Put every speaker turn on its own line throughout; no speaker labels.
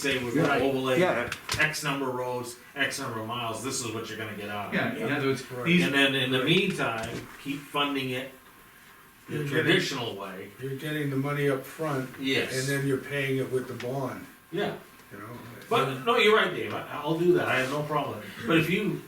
say we're
Yeah.
gonna overlay
Yeah.
X number of roads, X number of miles, this is what you're gonna get out of it.
Yeah, in other words,
Correct.
these,
And then in the meantime, keep funding it the
You're getting-
traditional way.
You're getting the money up front, and
Yes,
then you're paying it with the bond,
yeah,
you know?
but, no, you're right, Dave, I, I'll do that, I have no problem. with it. But if you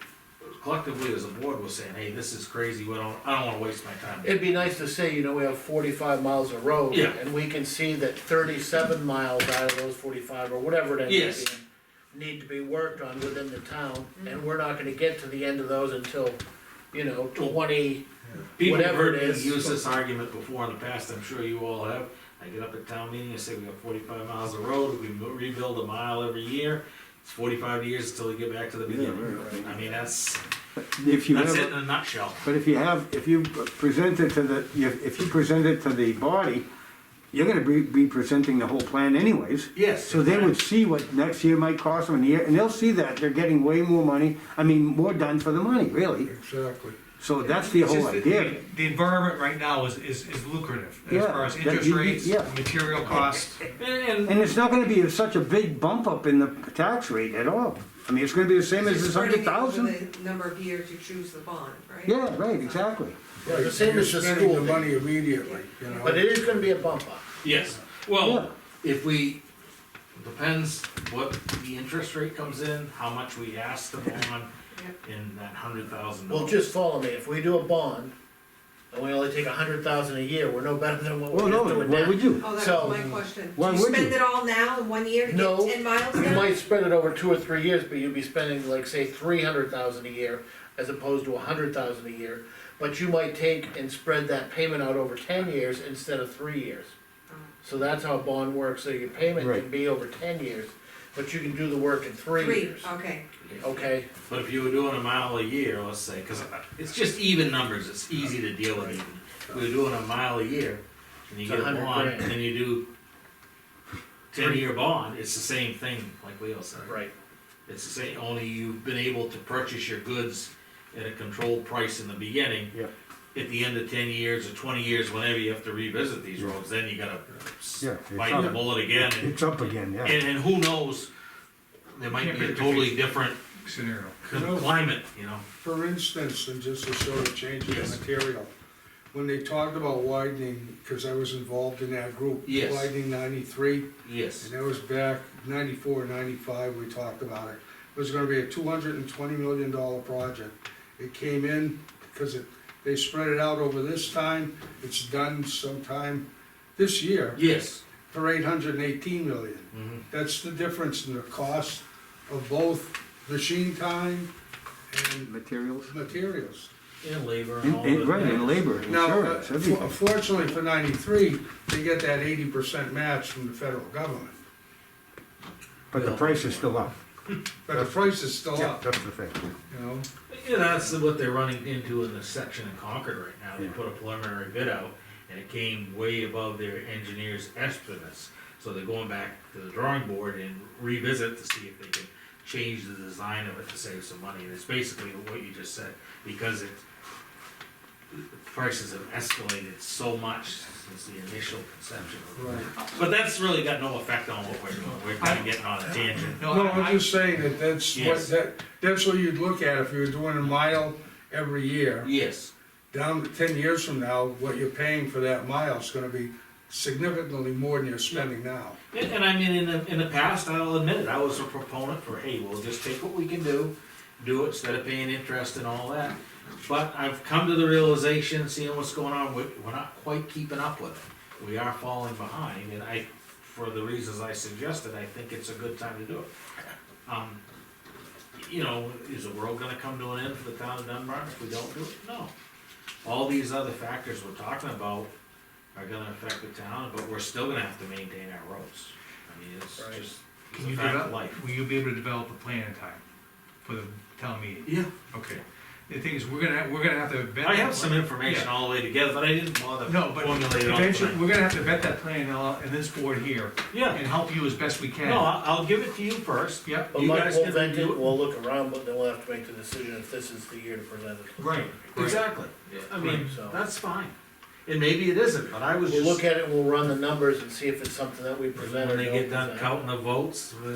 collectively as a board was saying, hey, this is crazy, we don't, I don't wanna waste my time.
It'd be nice to say, you know, we have forty-five miles of road.
Yeah.
And we can see that thirty-seven miles out of those forty-five, or whatever it ends
Yes.
up being, need to be worked on within the town, and we're not gonna get to the end of those until, you know, twenty,
People have
Whatever
heard
it
me
is.
use this argument before in the past, I'm sure you all have. I get up at town meeting, I say we got forty-five miles of road, we mo- rebuild a mile every year, it's forty-five years till you get back to the
Yeah,
beginning.
right, right.
I mean, that's,
If you
that's
have,
it
a-
in a nutshell.
but if you have, if you present it to the, if if you present it to the body, you're gonna be, be presenting the whole plan anyways.
Yes.
So they would see what next year might cost them, and year, and they'll see that they're getting way more money, I mean, more done for the money, really.
Exactly.
So that's the
It's
whole
just that
idea.
The environment right now is, is, is lucrative, as
Yeah,
far as
that
interest
you-
rates,
yeah.
material costs.
And,
And it's not gonna be such a big bump up in the tax rate at all. I mean, it's gonna be the same as this
Spreading
hundred
it over
thousand.
the Number of years you choose the bond, right?
Yeah, right, exactly.
Yeah, the
Right,
same
you're
as the
spending the
school thing.
money immediately, you know?
but it is gonna be a bump up.
yes,
Yeah.
well, if we, depends what the interest rate comes in, how much we ask the bond
Yep.
in that hundred thousand
Well,
dollars.
just follow me, if we do a bond, and we only take a hundred thousand a year, we're no better than what
Well,
we're
no,
just doing
what
now.
would you?
Oh, that
So,
was my question.
why
Do you
would
spend
you?
it all now in one year to get
No,
ten miles
You
done?
might spread it over two or three years, but you'd be spending like, say, three hundred thousand a year, as opposed to a hundred thousand a year. But you might take and spread that payment out over ten years instead of three years. So that's how a bond works, so your payment
Right.
can be over ten years, but you can do the work in three
Three,
years.
okay.
Okay,
But if you were doing a mile a year, let's say, because it's just even numbers, it's easy to deal with even. If we were doing a mile a year, and you
It's
get a
100
bond,
grand.
and then you do ten-year bond, it's the same thing, like we all said.
right,
It's the same, only you've been able to purchase your goods at a controlled price in the beginning.
Yeah.
At the end of ten years or twenty years, whenever you have to revisit these roads, then you gotta s-
Yeah, it's
bite the
up.
bullet again. And,
It's up again, yeah.
and and who knows, there might be a totally different
Scenario.
climate, you know?
For instance, and just to sort of change the
Yes.
material, when they talked about widening, because I was involved in that group.
Yes.
Widening ninety-three,
Yes.
and that was back 94, 95. we talked about it. It was gonna be a two hundred and twenty million dollar project. It came in, because it, they spread it out over this time, it's done sometime this year
Yes.
for eight hundred and eighteen million.
Mhm.
That's the difference in the cost of both machine time and
Materials.
materials.
And labor and
And-
all
and-
the
Right, and
things.
labor,
Now, uh,
insurance,
for-
everything.
fortunately for ninety-three, they get that eighty percent match from the federal government,
But the price is still up.
but the price is still
Yeah,
up,
that's the thing.
you know?
Yeah, that's what they're running into in the section in Concord right now. They
Yeah.
put a preliminary bid out and it came way above their engineer's estimates. So they're going back to the drawing board and revisit to see if they can change the design of it to save some money. And it's basically what you just said, because it, the prices have escalated so much since the initial conception. of it. But that's really got no effect on what we're doing. We're kind of getting on a tangent.
No,
No, I'm
I,
just saying that that's what,
Yes.
that, that's what you'd look at if you were doing a mile every year.
Yes.
Down to ten years from now, what you're paying for that mile is gonna be significantly more than you're spending now.
And, and I mean, in the, in the past, I'll admit it, I was a proponent for, hey, we'll just take what we can do, do it instead of paying interest and all that. But I've come to the realization, seeing what's going on, we're, we're not quite keeping up with it. We are falling behind, and I, for the reasons I suggested, I think it's a good time to do it. Um, You know, is the world gonna come to an end for the town of Dunbar if we don't do it? No. All these other factors we're talking about are gonna affect the town, but we're still gonna have to maintain our roads. I mean, it's
Right.
just, it's
can
a
you
fact of
develop,
life.
will you be able to develop a plan in time for the town meeting?
Yeah.
Okay. The thing is, we're gonna, we're gonna have to vet.
I
that
have some
plan.
information
Yeah.
all the way together, but I didn't bother
No, but
formulating all
eventually,
tonight.
we're gonna have to vet that plan in, all- in this board here
Yeah,
and help you as best we
no,
can.
I'll, I'll give it to you first.
Yep,
but
You
Mike,
guys
we'll
can
vent
do
it,
it.
we'll look around, but then we'll have to make the decision if this is the year to present it.
right, right.
Exactly. I mean,
Right, so-
that's fine. And maybe it isn't, but I was
We'll
just,
look at it, we'll run the numbers and see if it's something that we present or
when
don't
they get done
present.
counting the votes,